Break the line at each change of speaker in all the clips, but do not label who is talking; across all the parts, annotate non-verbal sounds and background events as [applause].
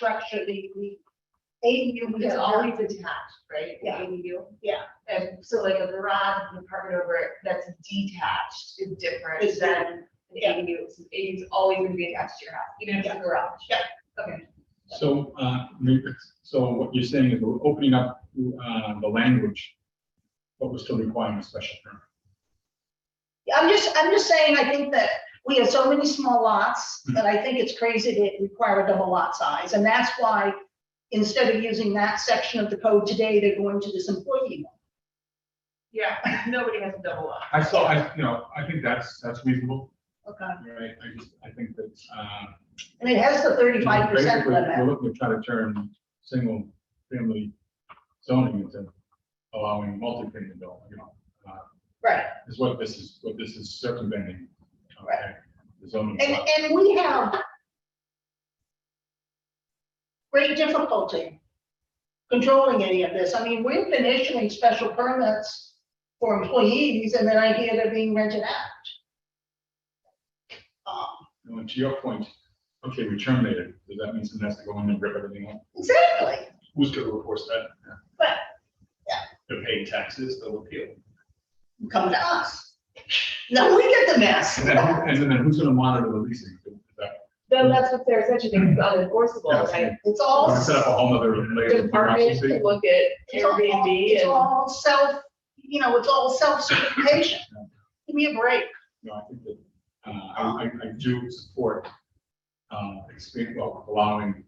structure, the, the ADU
It's
is
always
always,
attached, right? the
Yeah.
ADU?
yeah,
And so like a garage, an apartment over it, that's detached is different
It's
than an
yeah.
ADU. So ADU is always gonna be attached to your house, even if it's a garage.
Yeah.
Okay.
So, uh, re- so what you're saying is we're opening up, uh, the language, but we're still requiring a special permit.
I'm just, I'm just saying, I think that we have so many small lots, that I think it's crazy to require a double lot size, and that's why instead of using that section of the code today, they're going to this employee. one.
Yeah, nobody has a double up.
I saw, I, you know, I think that's, that's reasonable,
Okay.
right? I just, I think that, uh.
And it has the thirty-five percent
basically, We're
limit,
looking to try to turn single family zoning into allowing multi-family building, you know, uh,
right?
is what this is, what this is circumventing. okay,
Right.
The zoning.
And,
law.
and we have great difficulty controlling any of this. I mean, we've been issuing special permits for employees, and then I hear they're being rented out. Um,
And to your point, okay, we terminated, does that mean someone has to go in and rip everything up?
Exactly,
Who's gonna enforce that?
but yeah.
They're paying taxes, they'll appeal.
come to us. Now we get the mess.
[laughs] And then, and then who's gonna monitor the leasing? That-
Then that's what they're such a thing, it's unenforceable,
Yeah.
right?
It's
we're
all,
gonna Set up a whole nother layer of
Department
bureaucracy.
can look at
it's all,
Airbnb
it's
and.
all self, you know, it's all self-certification. Give me a break.
No, I think that, uh, I, I, I do support, uh, expand, well, allowing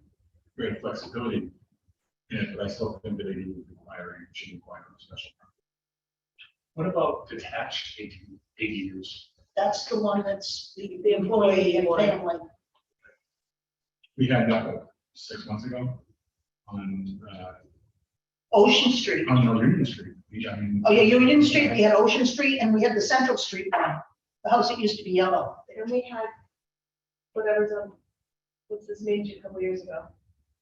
greater flexibility. in it, but I still think that ADU is requiring, should require a special. permit.
What about detached AD- ADUs?
That's the one that's the the employee and family.
We had that what, six months ago on, uh,
Ocean Street.
on the Union Street. We- I mean-
Oh, yeah, Union Street, we had Ocean Street, and we had the Central Street one, the house that used to be yellow.
And we had, whatever's on, what's this name a couple years ago?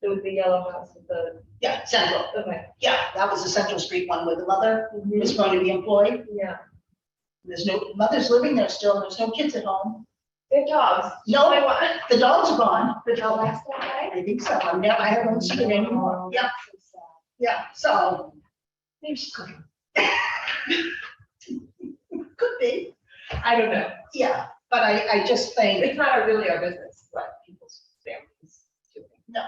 It was the yellow house with the,
Yeah, Central,
okay.
yeah, that was the Central Street one where the mother
Mm-hmm.
was going to be employed.
Yeah,
There's no, mother's living there still, there's no kids at home.
they have dogs.
No.
They want-
The dogs are gone,
The dog last one, right?
I think so, I'm never, I haven't seen it anymore. Yeah, yeah, so,
Maybe she's cooking.
[laughs] could be,
I don't know.
yeah, but I, I just think,
It's not really our business, what people's families do.
No.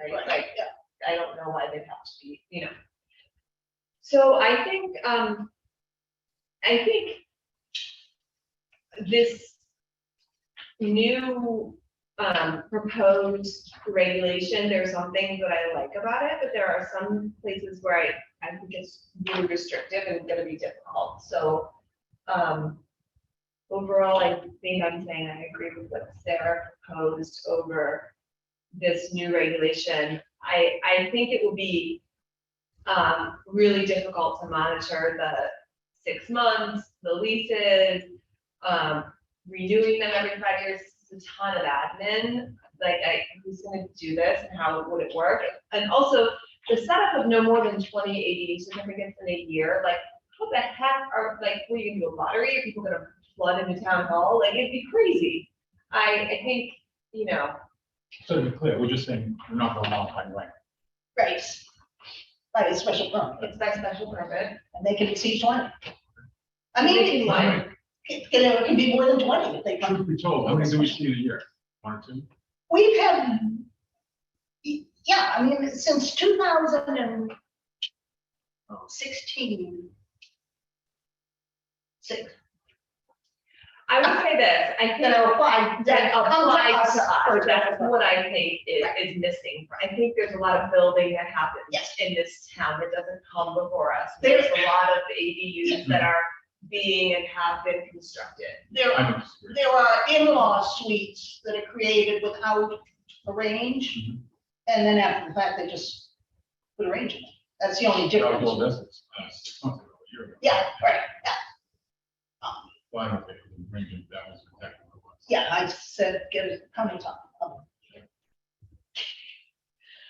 Right,
like,
like,
yeah,
I don't know why they'd have to be, you know. So I think, um, I think this new, um, proposed regulation, there's some things that I like about it, but there are some places where I, I think it's really restrictive and gonna be difficult, so, um, overall, I think I'm saying I agree with what Sarah proposed over this new regulation, I, I think it will be um, really difficult to monitor the six months, the leases, um, renewing them every five years, it's a ton of admin. Like, I, who's gonna do this and how would it work? And also, the setup of no more than twenty ADU certificates in a year, like, how the heck are, like, what are you gonna do, a lottery? Are people gonna flood into town hall? Like, it'd be crazy. I, I think, you know,
So to be clear, we're just saying, we're not going out by right.
right. Right, it's special permit,
it's by special permit.
and they can exceed twenty. I
They can
mean,
lie.
it can, it can be more than twenty if they come.
Truth be told, how many do we see in a year? One or two?
We've had, yeah, I mean, since two thousand and sixteen. Six,
I would say this, I
you
think
know, five, that
that
comes
applies
us
to
for
us, that's
that.
what I think is, is missing. I think there's a lot of building that happens
Yes.
in this town that doesn't come before us.
There-
There's a lot of ADUs that are being and have been constructed.
There,
I don't disagree.
there are in-law suites that are created without a range,
Mhm.
and then after the fact, they just put a range in it. That's the only
That was all
difference.
this, uh, six months ago, a year ago.
Yeah, right, yeah. Um,
Why don't they, bring it, that was exactly what it was.
Yeah, I said, get it, how many times?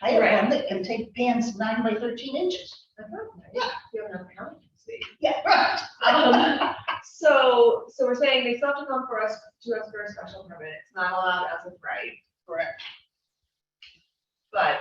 I
Right.
have one that can take pans nine by thirteen inches.
Yeah. You have enough counting space.
Yeah, right.
Um, so, so we're saying they still have to come for us, to us for a special permit. It's not allowed as of right,
Correct.
but